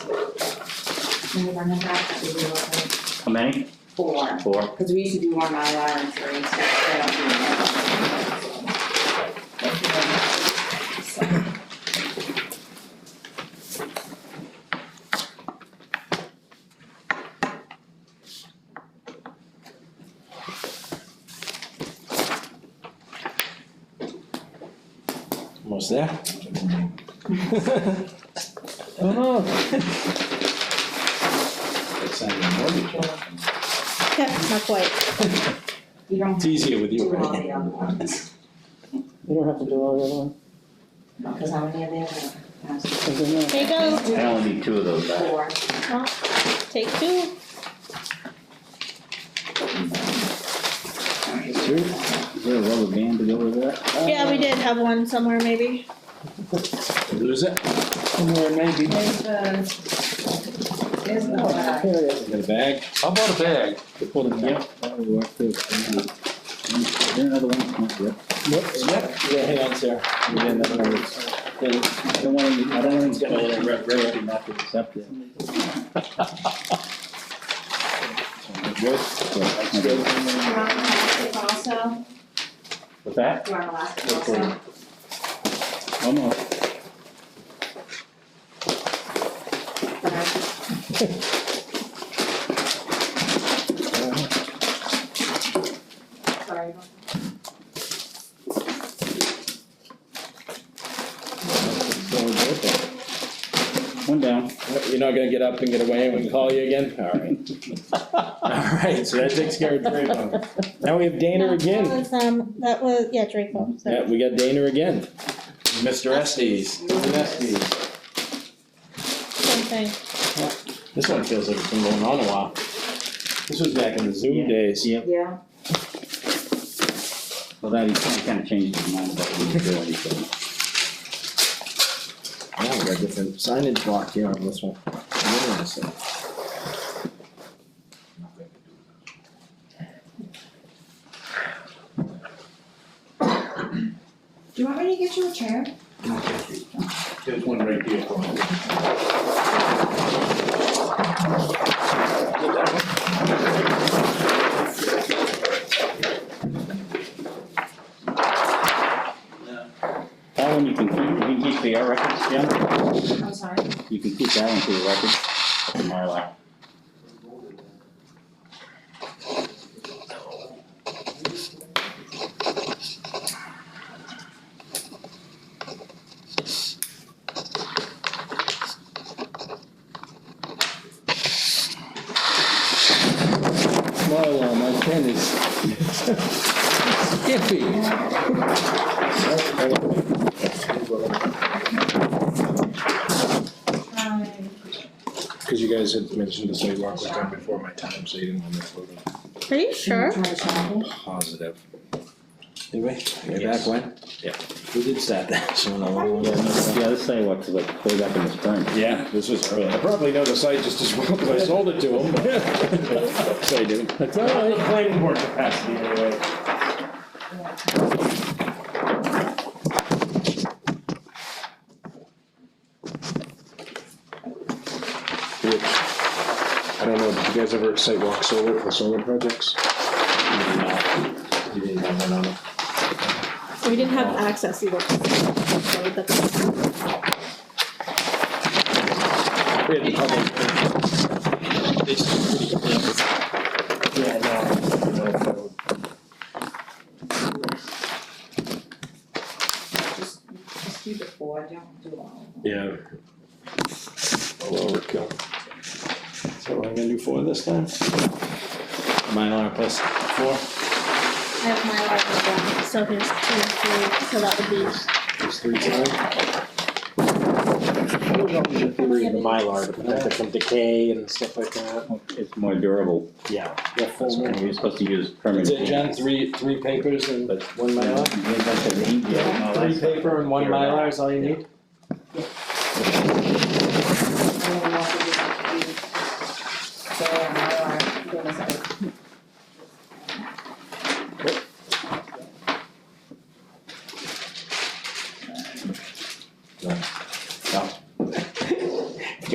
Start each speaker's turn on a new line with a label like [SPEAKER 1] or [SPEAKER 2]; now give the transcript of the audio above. [SPEAKER 1] Can we run them back? That would be lovely.
[SPEAKER 2] How many?
[SPEAKER 1] Four,
[SPEAKER 2] Four?
[SPEAKER 1] because we used to do one Mylar and three, so they don't do that. Thank you very much. So,
[SPEAKER 3] Almost there.
[SPEAKER 4] It's not a mortgage. offer.
[SPEAKER 5] Yeah, not quite.
[SPEAKER 1] You don't have
[SPEAKER 3] It's
[SPEAKER 1] to
[SPEAKER 3] easier with you,
[SPEAKER 1] do all
[SPEAKER 3] right?
[SPEAKER 1] the other ones,
[SPEAKER 6] You don't have to do all the other ones,
[SPEAKER 1] because how many of these are there?
[SPEAKER 6] 'cause they're not-
[SPEAKER 5] There you go,
[SPEAKER 2] I only need two of those back.
[SPEAKER 1] Four.
[SPEAKER 5] take two.
[SPEAKER 2] Two? Is there a rubber band to go with that?
[SPEAKER 5] Yeah, we did have one somewhere maybe.
[SPEAKER 3] Lose it?
[SPEAKER 6] somewhere maybe.
[SPEAKER 1] There's the, there's the, uh,
[SPEAKER 6] Here it is.
[SPEAKER 3] Got a bag? How about a bag? To put in there.
[SPEAKER 2] That would work too. Is there another one? Yep.
[SPEAKER 3] Yep. Yeah, hang on, Sarah. We got another one.
[SPEAKER 2] I don't want to, I don't want to get all that red, red, not to accept it.
[SPEAKER 3] Good.
[SPEAKER 2] Yeah, okay.
[SPEAKER 1] do you want elastic also?
[SPEAKER 3] With that?
[SPEAKER 1] Do you want elastic
[SPEAKER 3] Yeah,
[SPEAKER 1] also?
[SPEAKER 2] One more.
[SPEAKER 1] Okay. Sorry.
[SPEAKER 2] So we're good there. One down.
[SPEAKER 3] You're not gonna get up and get away and we call you again? All right. All right, so that takes care of Draco. Now we have Dana
[SPEAKER 5] No,
[SPEAKER 3] again.
[SPEAKER 5] That was, um, that was, yeah, Draco,
[SPEAKER 3] Yeah,
[SPEAKER 5] so.
[SPEAKER 3] we got Dana again. Mr. Estes. Mr. Estes.
[SPEAKER 5] Same thing.
[SPEAKER 3] This one feels like it's been going on a while. This was back in the Zoom
[SPEAKER 2] Yeah.
[SPEAKER 3] days.
[SPEAKER 2] Yep.
[SPEAKER 1] Yeah.
[SPEAKER 2] Well, that, he kind of changed his mind about what he's doing, so.
[SPEAKER 4] Now we got different signage block here on this one. Yeah, I see.
[SPEAKER 1] Do you want me to get you a chair?
[SPEAKER 7] There's one right here.
[SPEAKER 2] That one you can keep, you can keep for your records, Jim.
[SPEAKER 1] I'm sorry.
[SPEAKER 2] You can keep that one for your records, the Mylar.
[SPEAKER 3] Well, uh, my pen is skippy.
[SPEAKER 1] Um,
[SPEAKER 7] Cause you guys had mentioned the sidewalk was done before my time, so you didn't want me floating
[SPEAKER 5] Are you sure?
[SPEAKER 1] do you want to try it?
[SPEAKER 7] positive.
[SPEAKER 4] Did we? Way back when?
[SPEAKER 3] Yeah.
[SPEAKER 4] Who did start that? Someone along the
[SPEAKER 2] Yeah,
[SPEAKER 4] way.
[SPEAKER 2] no, The other sidewalks is like way back in the spring.
[SPEAKER 3] Yeah, this was early.
[SPEAKER 7] I probably know the site just as well, cause I sold it to him.
[SPEAKER 3] So I didn't. That's all right. The planning board capacity anyway.
[SPEAKER 7] Which, I don't know, did you guys ever sidewalk solar for solar projects? You didn't have one on it?
[SPEAKER 5] We didn't have access either. So that's-
[SPEAKER 3] We had the public- They seem pretty close.
[SPEAKER 7] Yeah, no.
[SPEAKER 1] Just, just do the four, don't do all of them.
[SPEAKER 7] Yeah.
[SPEAKER 3] Overkill. So we're gonna do four this time? Mylar plus four?
[SPEAKER 5] I have my life as well, so here's two, three, so that would be.
[SPEAKER 7] There's three sides. I don't know the theory of the Mylar to protect it from decay and stuff like that.
[SPEAKER 2] It's more durable.
[SPEAKER 7] Yeah. The
[SPEAKER 2] That's
[SPEAKER 7] full.
[SPEAKER 2] what You're supposed to use permanent.
[SPEAKER 3] Is it, John, three, three papers and
[SPEAKER 2] But-
[SPEAKER 3] one Mylar?
[SPEAKER 2] Yeah, that's a name, yeah, no,
[SPEAKER 3] Three
[SPEAKER 2] that's-
[SPEAKER 3] paper and one Mylar is all you need?